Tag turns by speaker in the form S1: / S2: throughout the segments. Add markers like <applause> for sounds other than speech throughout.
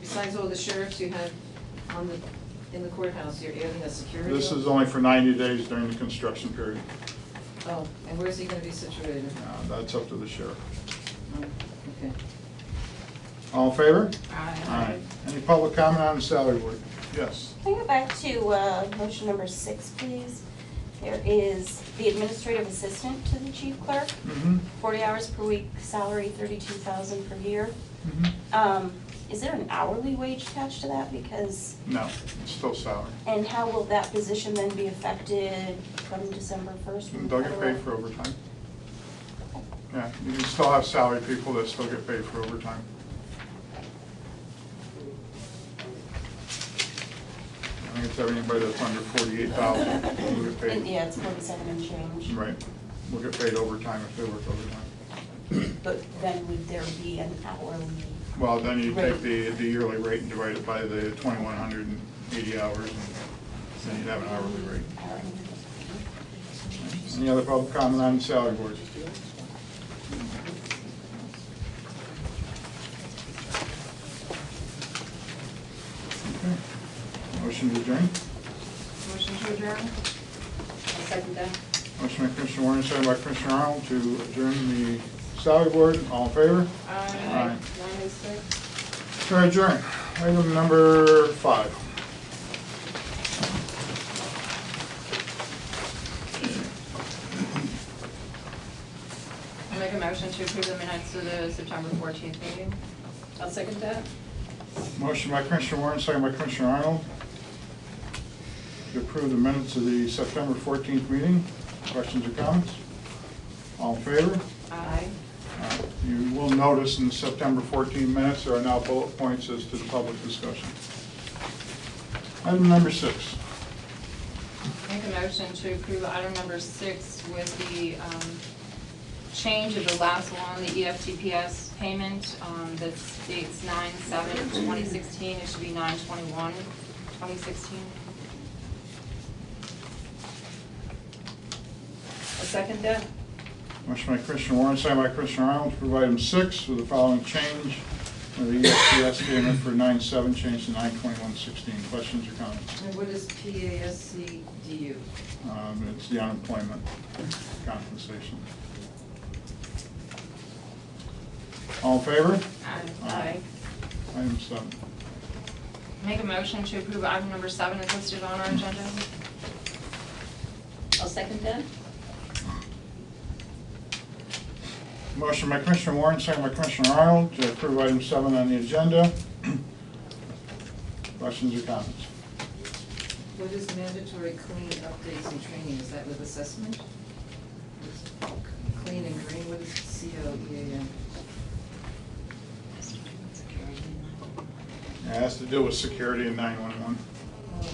S1: besides all the sheriffs you have on the, in the courthouse, you're adding a security?
S2: This is
S1: officer?
S2: only for 90 days during the construction period.
S1: Oh, and where's he gonna be situated?
S2: Uh, That's up to the sheriff.
S1: Oh, Okay.
S2: All in favor?
S1: Aye.
S2: Any public comment on the salary board? Yes.
S3: Can we go back to uh, motion number six, please? There is the administrative assistant to the chief clerk,
S2: Mm-hmm.
S3: forty hours per week, salary thirty-two thousand per year.
S2: Mhm.
S3: Um, Is there an hourly wage attached to that? Because,
S2: No, it's still salary.
S3: and how will that position then be affected from December first?
S2: They'll get paid for overtime. Yeah, you can still have salary people that still get paid for overtime. I think it's everybody that's under 48,000 will get paid.
S3: Yeah, it's forty-seven and change.
S2: Right, will get paid overtime if they work overtime.
S3: But then would there be an hourly?
S2: Well, then you take
S3: Right.
S2: the, the yearly rate and divide it by the twenty-one hundred and eighty hours, and then you'd have an hourly rate.
S3: hourly-
S2: Any other public comment on the salary board? Okay. Motion to adjourn.
S1: Motion to adjourn? second that.
S2: Motion by Commissioner Warren, second by Commissioner Arnold to adjourn the salary board. All in favor? Aye.
S1: Nine oh six?
S2: Sure, adjourn. Item number five.
S4: I make a motion to approve the minutes of the September fourteenth meeting.
S1: I'll second that.
S2: Motion by Commissioner Warren, second by Commissioner Arnold. To approve the minutes of the September 14th meeting. Questions or comments? All in favor?
S4: Aye.
S2: Uh, You will notice in the September 14 minutes, there are now bullet points as to the public discussion. Item number six.
S4: Make a motion to approve item number six with the um, change of the last one, the E EFTPS payment, um, that states nine seven twenty sixteen, it should be nine twenty-one, twenty sixteen.
S1: I'll second that.
S2: Motion by Commissioner Warren, second by Commissioner Arnold to approve item six with the following change. of The E EFCS payment for 9/7 changed to 9/21/16. Questions or comments?
S1: And what is PASCDU?
S2: Um, It's the unemployment compensation. All in favor?
S4: Aye.
S2: Aye. Item seven.
S4: Make a motion to approve item number seven is listed on our agenda.
S1: I'll second that.
S2: Motion by Commissioner Warren, second by Commissioner Arnold to approve item seven on the agenda. <clears throat> Questions or comments?
S1: What is mandatory clean updates and training? Is that with assessment? Clean and green, what is C O E A N?
S2: It has to do with security in 911.
S1: Oh.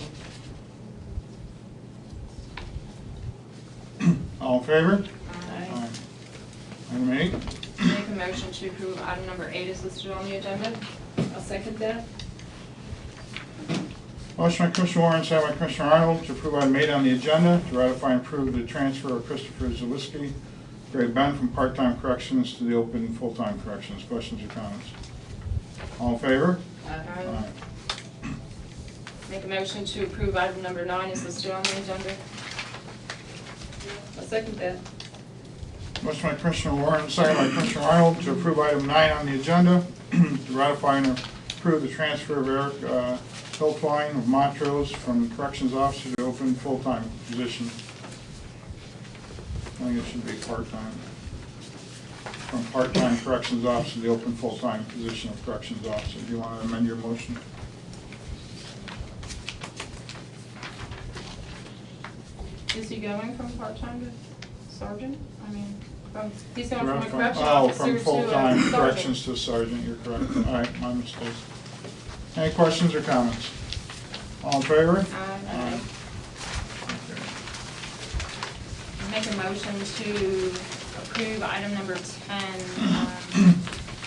S2: All in favor?
S4: Aye.
S2: Item eight.
S4: Make a motion to approve item number eight is listed on the agenda.
S1: I'll second that.
S2: Motion by Commissioner Warren, second by Commissioner Arnold, to approve item eight on the agenda, to ratify and approve the transfer of Christopher Zawiski, grade Ben, from part-time corrections to the open and full-time corrections. Questions or comments? All in favor?
S4: Aye. Make a motion to approve item number nine is listed on the agenda.
S1: I'll second that.
S2: Motion by Commissioner Warren, second by Commissioner Arnold, to approve item nine on the agenda, <clears throat> to ratify and approve the transfer of Eric uh, Hiltwein of Montrose from corrections officer to open full-time position. I think it should be part-time. From part-time corrections officer to the open full-time position of corrections officer. Do you want to amend your motion?
S4: Is he going from part-time to sergeant? I mean, from, he's going from a
S2: From-
S4: correction
S2: oh,
S4: officer to a
S2: From full-time
S4: sergeant.
S2: corrections to sergeant, you're correct. All right, my mistake. Any questions or comments? All in favor?
S4: Aye.
S2: Okay.
S4: Make a motion to approve item number ten, um,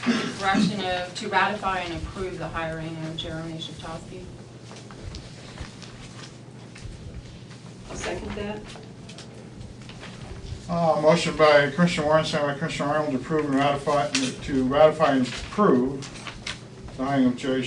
S4: with direction of, to ratify and approve the hiring of Jeremy Shatowski.
S1: I'll second that.
S2: Uh, motion by Commissioner Warren, second by Commissioner Arnold to approve and ratify, to ratify and approve the hiring of Jerry